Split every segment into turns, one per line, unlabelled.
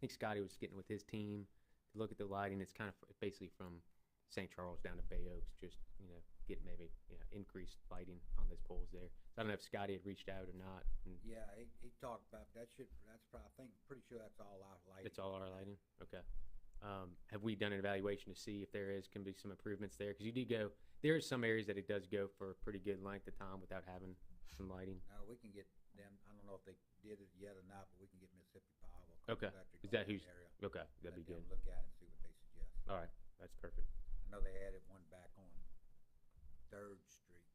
think Scotty was getting with his team to look at the lighting. It's kind of f- basically from St. Charles down to Bay Oaks, just you know, getting maybe you know, increased lighting on those poles there. So I don't know if Scotty had reached out or not. And
Yeah, he, he talked about, that should, that's probably, I think, pretty sure that's all our lighting.
It's all our lighting. Okay. Um, have we done an evaluation to see if there is can be some improvements there? Because you do go there are some areas that it does go for a pretty good length of time without having some lighting.
Now, we can get them, I don't know if they did it yet or not, but we can get Mississippi Power.
Okay.
Electric
Is that
on
who's-
area,
Okay, that'd be
let them
good.
Look at it and see what they suggest.
All right, that's perfect.
I know they added one back on Third Street,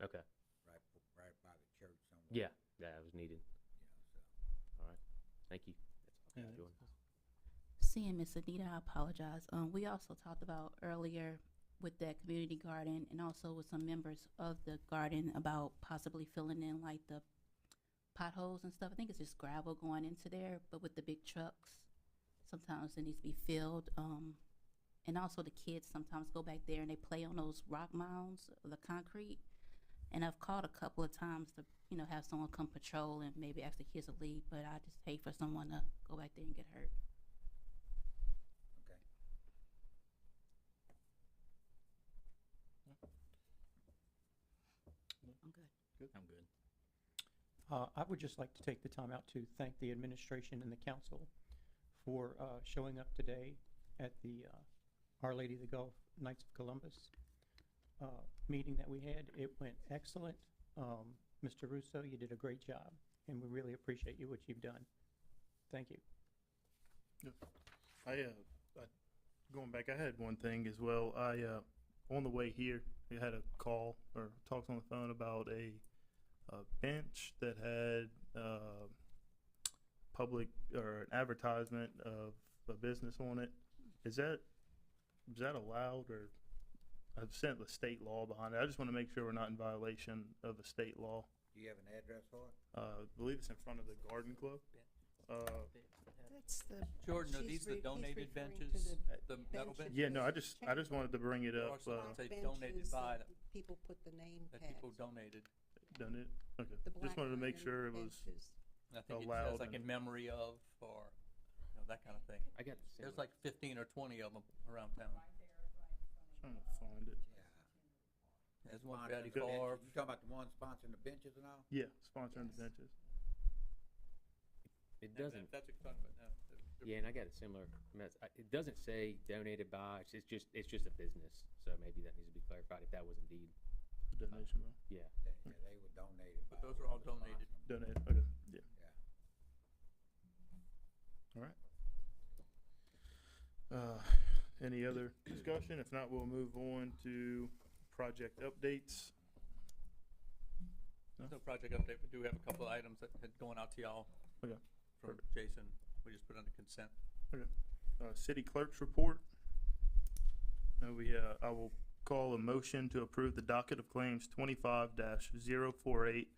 Okay,
right, b- right by the church somewhere.
yeah, that was needed.
You know, so.
Thank you. That's all. Jordan.
Seeing Miss Anita, I apologize. Um, we also talked about earlier with that community garden and also with some members of the garden about possibly filling in like the potholes and stuff. I think it's just gravel going into there, but with the big trucks, sometimes it needs to be filled. Um, and also the kids sometimes go back there and they play on those rock mounds, the concrete. And I've called a couple of times to, you know, have someone come patrol and maybe ask the kids to leave, but I just hate for someone to go back there and get hurt.
Okay.
I'm good.
I'm good.
Uh, I would just like to take the time out to thank the administration and the council for uh, showing up today at the uh, Our Lady of the Gulf Knights of Columbus uh, meeting that we had. It went excellent. Um, Mr. Russo, you did a great job, and we really appreciate you, what you've done. Thank you.
I, uh, I, going back, I had one thing as well. I, uh, on the way here, I had a call or talks on the phone about a, a bench that had, uh, public or an advertisement of a business on it. Is that, is that allowed or I've sent the state law behind it. I just want to make sure we're not in violation of a state law.
Do you have an address for it?
Uh, I believe it's in front of the garden club. Uh,
That's the.
Jordan, are
she's
these the
re- he's
donated
referring to
benches, uh,
the
the metal
benches.
benches?
yeah, no, I just, I just wanted to bring it up.
Or
Uh,
something. They
benches
donated by
that People put the name
That
tags.
people donated.
done it. Okay.
the black
Just wanted to make
iron
sure it was,
benches.
I think it
Allowed
says like in
and-
memory of, or, you know, that kind of thing.
I got the same.
There's like fifteen or twenty of them around town.
trying to find it.
Yeah.
There's one
Sponsoring
Betty
the benches.
Favre.
You talking about the one sponsoring the benches and all?
Yeah, sponsoring
Yes.
the benches.
It doesn't.
That's what you're talking about now. The- the-
Yeah, and I got a similar. mess. I- It doesn't say donated by. It's it's just it's just a business. So maybe that needs to be clarified if that was indeed.
The donation, though.
Yeah.
They, yeah, they were donated by.
But those are all
whoever sponsored
donated.
them.
Donate. Okay. Yeah.
Yeah.
All right. Uh, any other discussion? If not, we'll move on to project updates.
No project update, we do have a couple of items that had gone out to y'all.
Okay,
From Jason, we just put under consent.
Uh, city clerk's report. Now we, uh, I will call a motion to approve the docket of claims twenty-five 48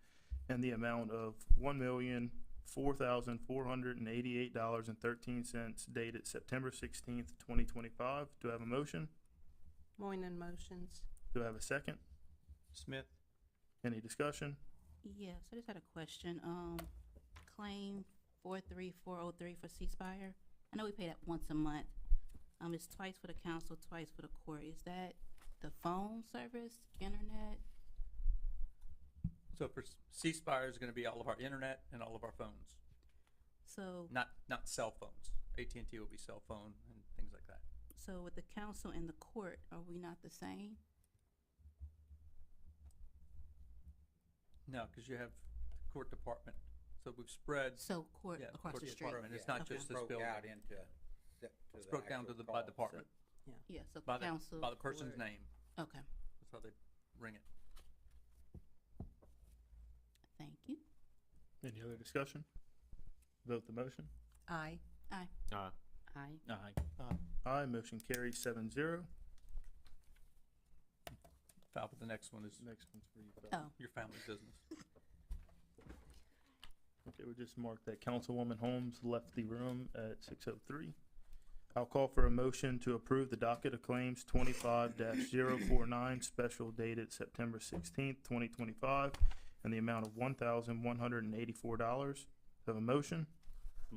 and the amount of one million, four thousand, four hundred and eighty-eight dollars and thirteen cents dated September sixteenth, twenty twenty-five. Do I have a motion?
Moynihan motions.
Do I have a second?
Smith,
Any discussion?
Yes, I just had a question. Um, claim four three four oh three for ceasefire. I know we pay that once a month. Um, it's twice for the council, twice for the court. Is that the phone service, internet?
So for s- ceasefire is gonna be all of our internet and all of our phones,
So,
not, not cell phones. AT&T will be cell phone and things like that.
so with the council and the court, are we not the same?
No, because you have the court department. So we've spread,
So court
Yeah,
across
court
the
is
street.
department. It's
Yeah,
not just this
Broke
building.
out into. se- to
it's broke down to
actual
the, by
calls.
department,
Yeah, so
by the,
council.
by the person's
court.
name.
Okay,
That's how they ring it.
thank you.
Any other discussion? Vote the motion.
Aye.
Uh,
Aye.
Aye. Aye, motion carries seven zero.
File for the next one is
Next one's for you. Phil.
Oh,
your family business.
Okay, we just marked that Councilwoman Holmes left the room at six oh three. I'll call for a motion to approve the docket of claims twenty-five 49 special dated September sixteenth, twenty twenty-five, and the amount of one thousand one hundred and eighty-four dollars. Have a motion?